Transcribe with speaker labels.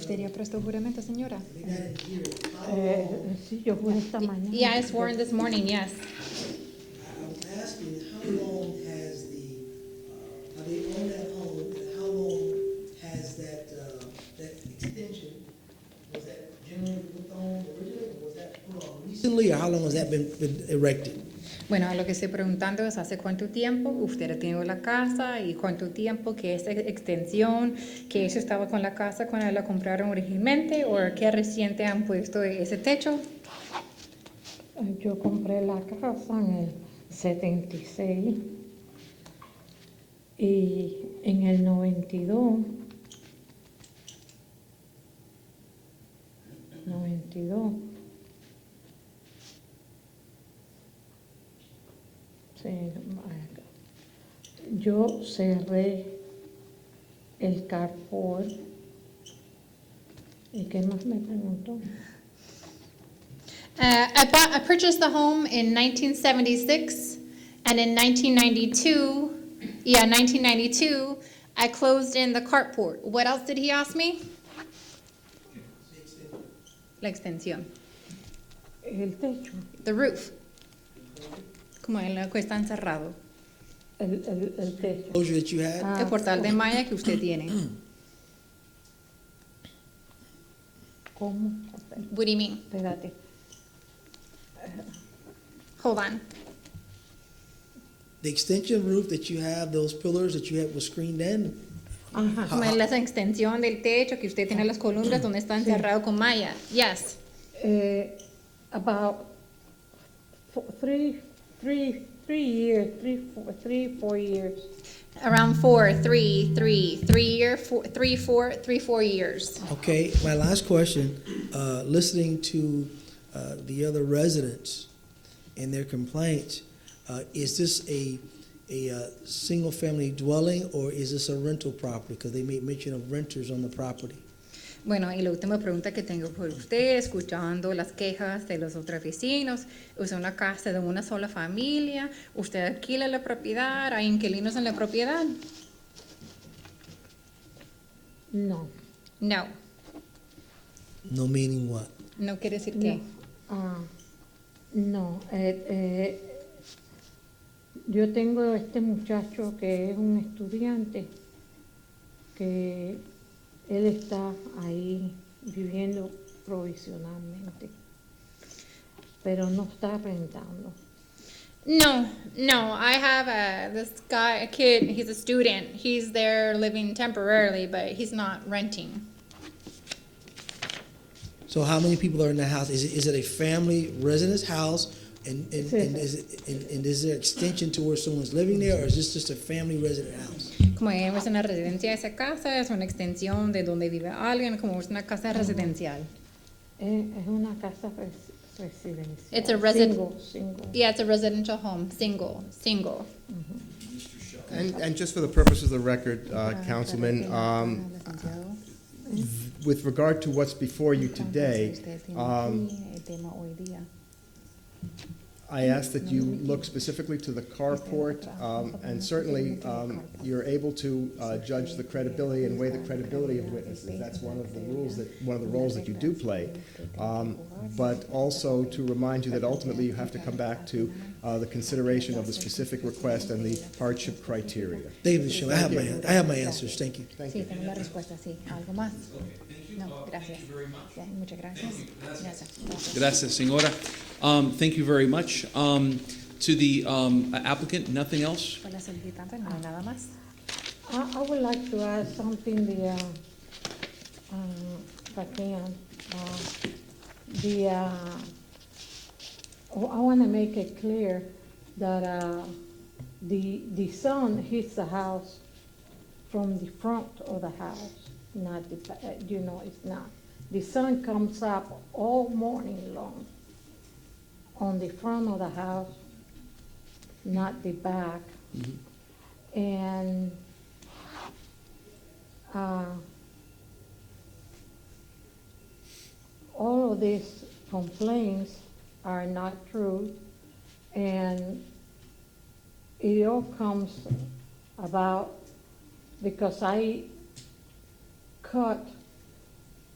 Speaker 1: ¿Sería presto juramento, señora?
Speaker 2: Eh, sí, yo juré esta mañana.
Speaker 3: Yeah, I sworn this morning, yes.
Speaker 4: I'm asking, how long has the, uh, are they on that home, and how long has that, uh, that extension, was that generally put on originally, or was that put on recently, or how long has that been, been erected?
Speaker 3: Bueno, a lo que estoy preguntando es hace cuánto tiempo usted ha tenido la casa y cuánto tiempo que esa extensión, que eso estaba con la casa cuando la compraron originalmente o que reciente han puesto ese techo.
Speaker 2: Eh, Yo compré la casa en el 76 y en el 92, 92, sí, acá. yo cerré el carport. ¿Y qué más me preguntó?
Speaker 3: Uh, I bought, I purchased the home in 1976, and in 1992, yeah, 1992, I closed in the carport. What else did he ask me? La extensión,
Speaker 2: El techo.
Speaker 3: the roof. Como el que está encerrado,
Speaker 2: El, el, el techo.
Speaker 4: Closure that you had?
Speaker 3: el portal de malla que usted tiene.
Speaker 2: ¿Cómo?
Speaker 3: What do you mean?
Speaker 2: Espérate.
Speaker 3: Hold on.
Speaker 4: The extension roof that you have, those pillars that you had was screened in?
Speaker 2: Ajá.
Speaker 3: Como es la extensión del techo que usted tiene las columnas donde está encerrado con malla. Yes.
Speaker 2: Eh, about fo- three, three, three years, three, four, three, four years.
Speaker 3: Around four, three, three, three year, four, three, four, three, four years.
Speaker 4: Okay, my last question, uh, listening to, uh, the other residents and their complaints, uh, is this a, a, uh, single-family dwelling or is this a rental property? Because they made mention of renters on the property.
Speaker 3: Bueno, y la última pregunta que tengo por usted, escuchando las quejas de los otros vecinos, es una casa de una sola familia, usted alquila la propiedad, hay inquilinos en la propiedad.
Speaker 2: No.
Speaker 3: No,
Speaker 4: No meaning what?
Speaker 3: no quiere decir que.
Speaker 2: Ah, no. eh, eh, yo tengo este muchacho que es un estudiante, que él está ahí viviendo provisionalmente, pero no está rentando.
Speaker 3: No, no, I have a this guy, a kid. He's a student. He's there living temporarily, but he's not renting.
Speaker 4: So how many people are in the house? Is it, is it a family residence house? And, and, and is it, and, and is there extension to where someone's living there or is this just a family resident house?
Speaker 3: Como vemos en la residencia de esa casa, es una extensión de donde vive alguien, como es una casa residencial.
Speaker 2: Es, Eh, es una casa res- residencial.
Speaker 3: It's a resi-
Speaker 2: Single, single.
Speaker 3: Yeah, it's a residential home, single, single.
Speaker 5: And, and just for the purpose of the record, uh,
Speaker 3: Ah,
Speaker 5: Councilman, um, with regard to what's before you today, um, I ask that you look specifically to the carport, um, and certainly, um, you're able to, uh, judge the credibility and weigh the credibility of witnesses. That's one of the rules that, one of the roles that you do play. Um, but also to remind you that ultimately you have to come back to, uh, the consideration of the specific request and the hardship criteria.
Speaker 4: David, Michelle, I have my, I have my answers, thank you.
Speaker 3: Sí, tengo la respuesta, sí. ¿Algo más? No, gracias. Ya, Muchas gracias. Gracias.
Speaker 6: Gracias, senora. Um, thank you very much. Um, to the um, applicant, nothing else?
Speaker 3: Con la solicitante no hay nada más.
Speaker 2: I, I would like to add something there, um, if I can. Uh, The, uh, oh, I want to make it clear that uh, the, the sun hits the house from the front of the house, not the, ba- uh, you know, it's not. The sun comes up all morning long on the front of the house, not the back. And uh, all of these complaints are not true, and it all comes about because I cut